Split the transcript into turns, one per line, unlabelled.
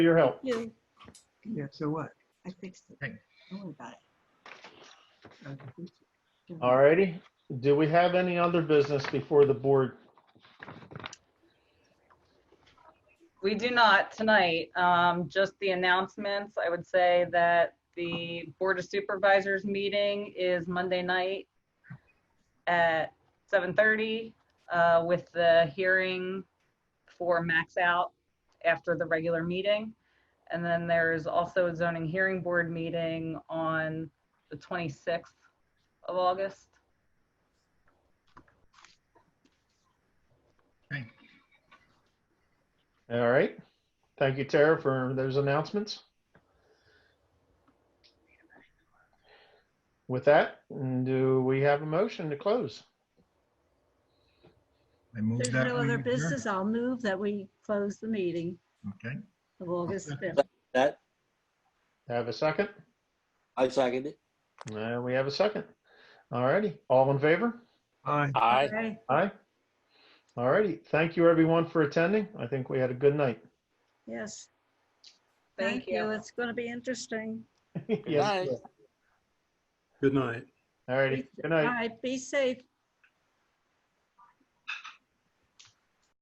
for your help.
Yeah.
Yeah, so what?
I fixed it.
Thank-
Don't worry about it.
I can fix it.
Don't
All
worry.
righty. Do we have any other business before the board?
We do not tonight. Um, Just the announcements. I would say that the Board of Supervisors meeting is Monday night at 7:30 uh, with the hearing for max out after the regular meeting. And then there's also a zoning hearing board meeting on the 26th of August.
All right. Thank you, Tara, for those announcements. With that, do we have a motion to close?
I moved
There's
that.
no
we
other
adjourn.
business. I'll move that we close the meeting
Okay,
of August 5th.
That,
Have a second?
I second it.
Uh, we have a second. All righty. All in favor?
Aye.
Aye.
Okay.
Aye. All righty. Thank you, everyone, for attending. I think we had a good night.
Yes.
Thank you.
It's going to be interesting.
Yes.
night.
Good night.
All righty. Good night.
All right, be safe.